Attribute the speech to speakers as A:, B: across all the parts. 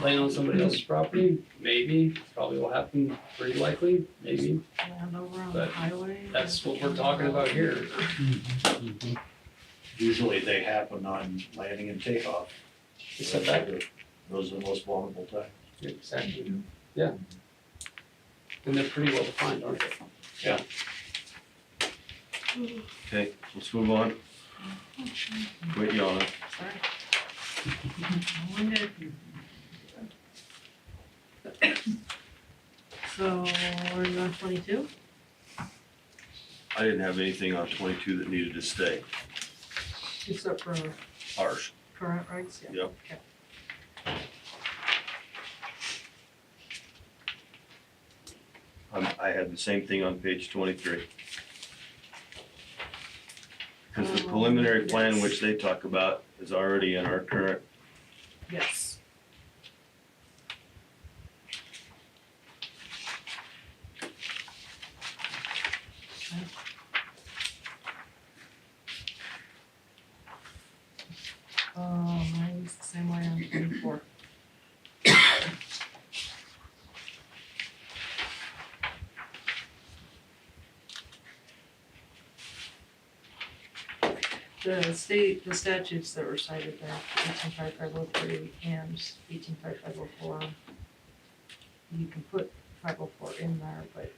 A: playing on somebody else's property, maybe, probably will happen pretty likely, maybe.
B: Land over on the
A: But
B: highway.
A: That's what we're talking about here.
C: Mm-hmm.
D: Usually they happen on landing and takeoff.
A: Except that,
D: Those are the most vulnerable times.
A: exactly, yeah. And they're pretty well defined, aren't they?
E: Okay, let's move on. Quit yawning.
B: Sorry. I wonder if- So, we're on twenty-two?
E: I didn't have anything on twenty-two that needed to stay.
B: Except for
E: Ours.
B: current regs, yeah.
E: Yep.
B: Okay.
E: Um, I had the same thing on page twenty-three. Cause the
B: Um,
E: preliminary plan
B: yes.
E: which they talk about is already in our current,
B: Yes. Okay. Uh, mine's the same way on twenty-four. The state, the statutes that were cited there, eighteen five five oh three and eighteen five five oh four. You can put five oh four in there, but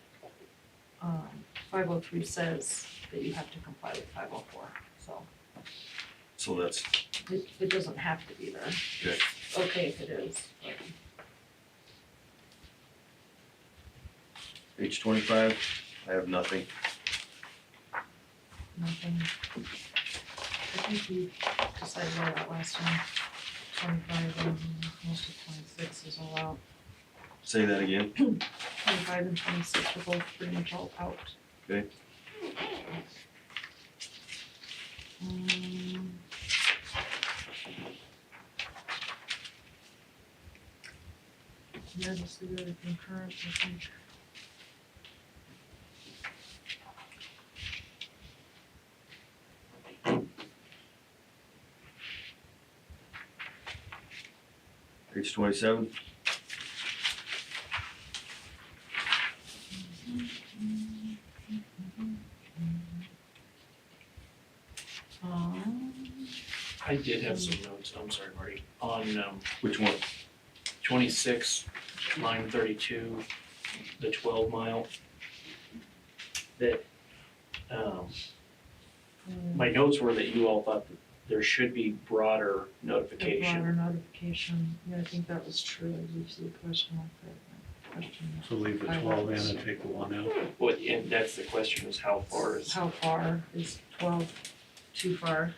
B: um five oh three says that you have to comply with five oh four, so
E: so that's,
B: it it doesn't have to be there.
E: Okay.
B: It's Okay if it is, but
E: page twenty-five, I have nothing.
B: nothing. I think we decided all that last time, twenty-five and most of twenty-six is all out.
E: Say that again,
B: Twenty-five and twenty-six are both pretty much all out.
E: Okay.
B: Mm. Yeah, just leave it concurrent, I think.
E: page twenty-seven,
B: Um,
D: I did have some notes, I'm sorry, Marty, on um,
E: which one?
D: twenty-six, line thirty-two, the twelve mile. That, um,
B: um,
D: my notes were that you all thought that there should be broader
B: The
D: notification.
B: broader notification, yeah, I think that was true, I used the question like that, question,
C: So leave the twelve in and take the one out.
D: What, and that's the question is how far is,
B: how far is twelve too far?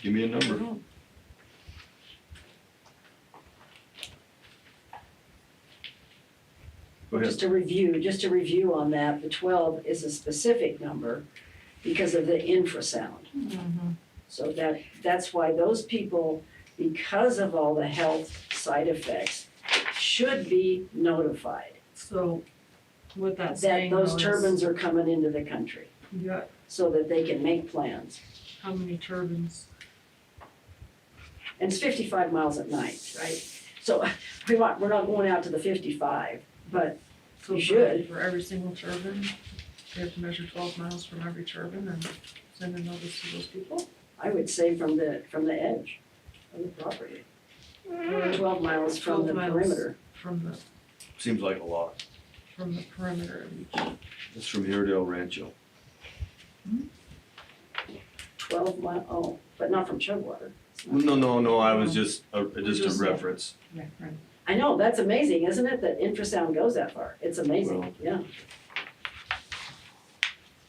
E: Give me a
B: I
E: number.
B: don't-
E: Go ahead.
F: Just a review, just a review on that, the twelve is a specific number because of the infrasound. Mm-hmm.
B: Mhm.
F: So that, that's why those people, because of all the health side effects, should be notified
B: So what that's
F: that
B: saying though
F: those
B: is,
F: turbines are coming into the country
B: you got
F: so that they can make plans.
B: how many turbines?
F: And it's fifty-five miles at night, right? So we want, we're not going out to the fifty-five, but
B: So
F: You
B: for-
F: should.
B: For every single turbine, they have to measure twelve miles from every turbine and send a notice to those people?
F: I would say from the, from the edge of the property,
B: Or
F: twelve miles from
B: 12
F: the
B: miles.
F: perimeter.
B: From the,
E: Seems like a lot.
B: from the perimeter of each,
E: It's from here to El Rancho.
F: Twelve mile, oh, but not from Chugwater. It's not-
E: No, no, no, I was just, uh,
B: Just-
E: just a reference.
B: yeah, right.
F: I know, that's amazing, isn't it, that infrasound goes that far? It's amazing,
E: Well-
F: yeah.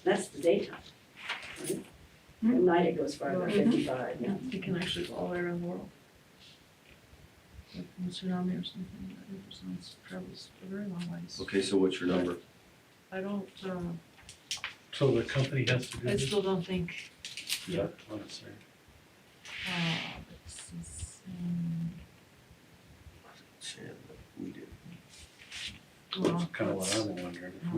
F: That's the daytime, right? At
B: Hmm.
F: night it goes farther,
B: Mhm.
F: fifty-five, yeah.
B: Yeah, it can actually go all the way around the world. Like from a tsunami or something, that represents travels a very long ways.
E: Okay, so what's your number?
B: I don't, uh,
C: So the company has to do
B: I
C: this?
B: still don't think,
C: Yeah. Oh, sorry.
B: uh, this is, um,
E: Sam, We did.
B: well,
C: That's kind of what
B: that's-
C: I'm wondering. If we